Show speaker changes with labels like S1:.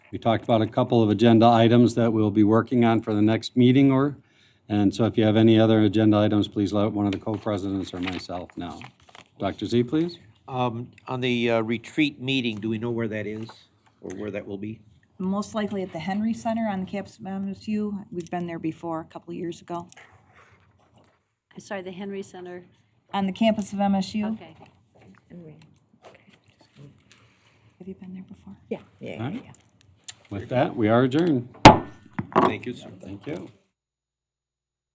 S1: We talked about a couple of agenda items that we'll be working on for the next meeting or, and so if you have any other agenda items, please let one of the co-presidents or myself know. Dr. Z, please.
S2: Um, On the uh, retreat meeting, do we know where that is or where that will be?
S3: most likely at the Henry Center on campus of MSU. We've been there before, a couple of years ago.
S4: I'm sorry, the Henry Center,
S3: On the campus of MSU.
S4: okay.
S3: Have you been there before?
S5: Yeah, yeah, yeah, yeah.
S1: With that, we are adjourned.
S2: Thank you, sir.
S1: Thank you.